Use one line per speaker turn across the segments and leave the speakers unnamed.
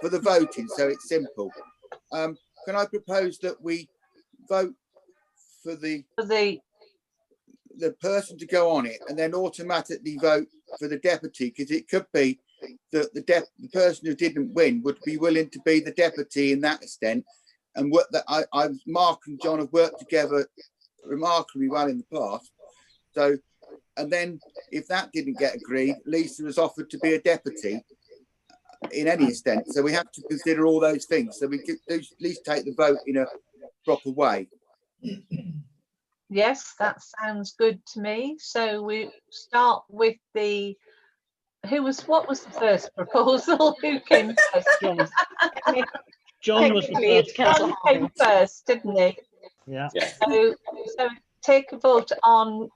for the voting, so it's simple. Um, can I propose that we vote for the,
for the,
the person to go on it and then automatically vote for the deputy? Because it could be that the dep, the person who didn't win would be willing to be the deputy in that extent. And what that I, I, Mark and John have worked together remarkably well in the past. So, and then if that didn't get agreed, Lisa was offered to be a deputy in any extent. So we have to consider all those things. So we could do- at least take the vote in a proper way.
yes, that sounds good to me. So we start with the, who was, what was the first proposal? Who came first?
John was- John was the
Technically, it's
first,
John
councillor
came
Howard.
first, didn't he?
yeah.
So, so take a vote on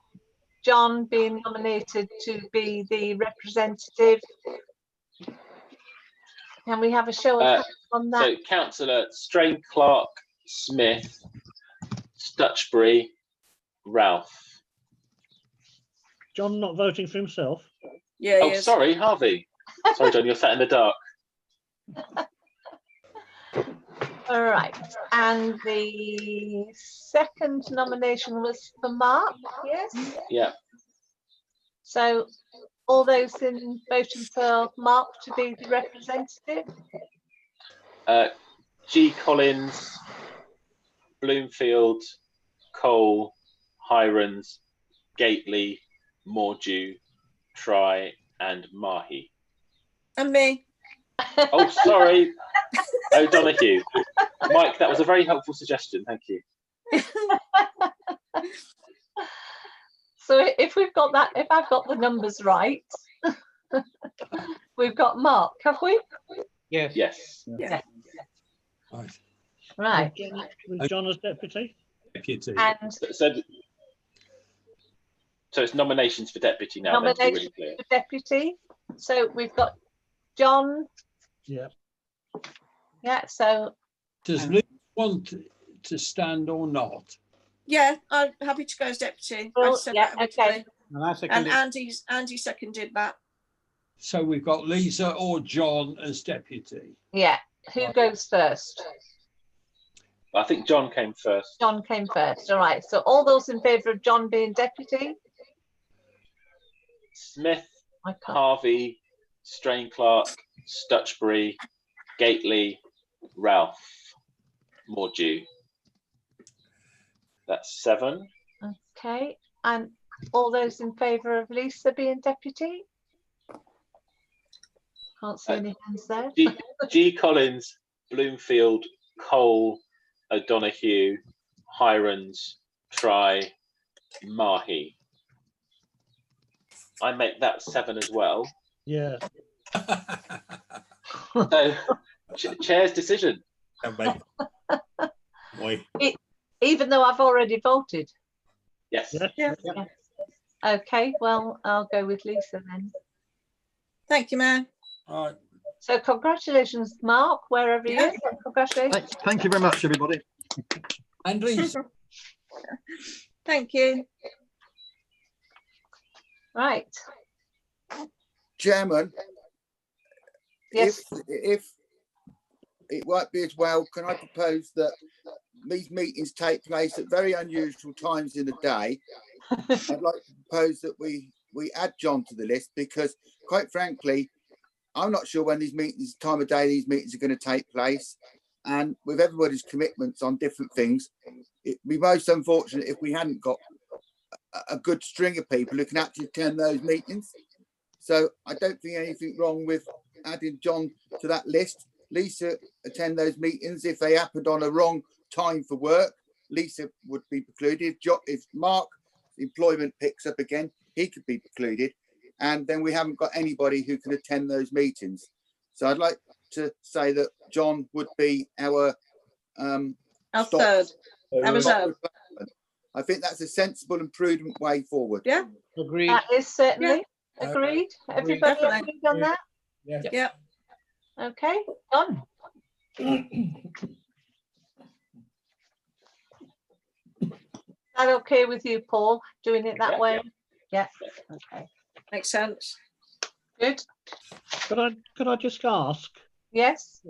John being nominated to be the representative. Can we have a show of
Uh,
hands on that?
So councillor Strain Clark, Smith, Stutchbury, Ralph.
John not voting for himself.
Yeah,
Oh,
yes.
sorry, Harvey. Sorry, John, you're sat in the dark.
All right, and the second nomination was for Mark, yes?
Yeah.
So all those in voting for Mark to be the representative?
Uh, G. Collins, Bloomfield, Cole, Hirons, Gately, Mordew, Try, and Mahi.
And me.
Oh, sorry, O'Donoghue. Mike, that was a very helpful suggestion. Thank you.
So i- if we've got that, if I've got the numbers right, we've got Mark, have we?
Yes.
Yes.
Right.
Right,
With John as deputy.
Deputy.
and
So, so- so it's nominations for deputy now. then, to be really clear.
the deputy, so we've got John,
Yeah.
yeah, so,
Does Liz want to stand or not?
Yeah, I'm happy to go as deputy. I
Well,
said
yeah,
that originally.
And I
And uh,
seconded.
Andy's, Andy seconded that.
So we've got Lisa or John as deputy.
yeah, who goes first?
I think John came first.
John came first, all right, so all those in favour of John being deputy?
Smith,
I can't,
Harvey, Strain Clark, Stutchbury, Gately, Ralph, Mordew. That's seven.
okay, and all those in favour of Lisa being deputy? Can't see
Uh,
any hands there.
G, G. Collins, Bloomfield, Cole, O'Donoghue, Hirons, Try, Mahi. I make that seven as well.
Yeah.
So, ch- chair's decision.
Boy.
even though I've already voted.
Yes.
Yeah.
Okay, well, I'll go with Lisa then.
Thank you, Mayor.
All right.
So congratulations, Mark, wherever you
Yeah.
are. Congratulations.
Thank thank you very much, everybody.
And Lisa,
Thank you.
Right,
Chairman,
yes,
If, if it might be as well, can I propose that these meetings take place at very unusual times in the day? I'd like to propose that we, we add John to the list because quite frankly, I'm not sure when these meetings, time of day these meetings are going to take place. And with everybody's commitments on different things, it'd be most unfortunate if we hadn't got a, a good string of people who can actually attend those meetings. So I don't think anything wrong with adding John to that list. Lisa attend those meetings. If they happened on a wrong time for work, Lisa would be precluded. If Jo- If Mark employment picks up again, he could be precluded. And then we haven't got anybody who can attend those meetings. So I'd like to say that John would be our um,
Our
Stop.
third. I was
stop
out.
replacement. I think that's a sensible and prudent way forward.
Yeah,
Agreed.
that is certainly
Uh,
agreed. Everybody
Definitely.
agreed on
Yeah.
that?
Yeah.
Yeah.
Okay, done. Is that okay with you, Paul, doing it
Yeah,
that way? Yeah,
yeah.
okay,
makes sense.
good.
Could I, could I just ask,
Yes?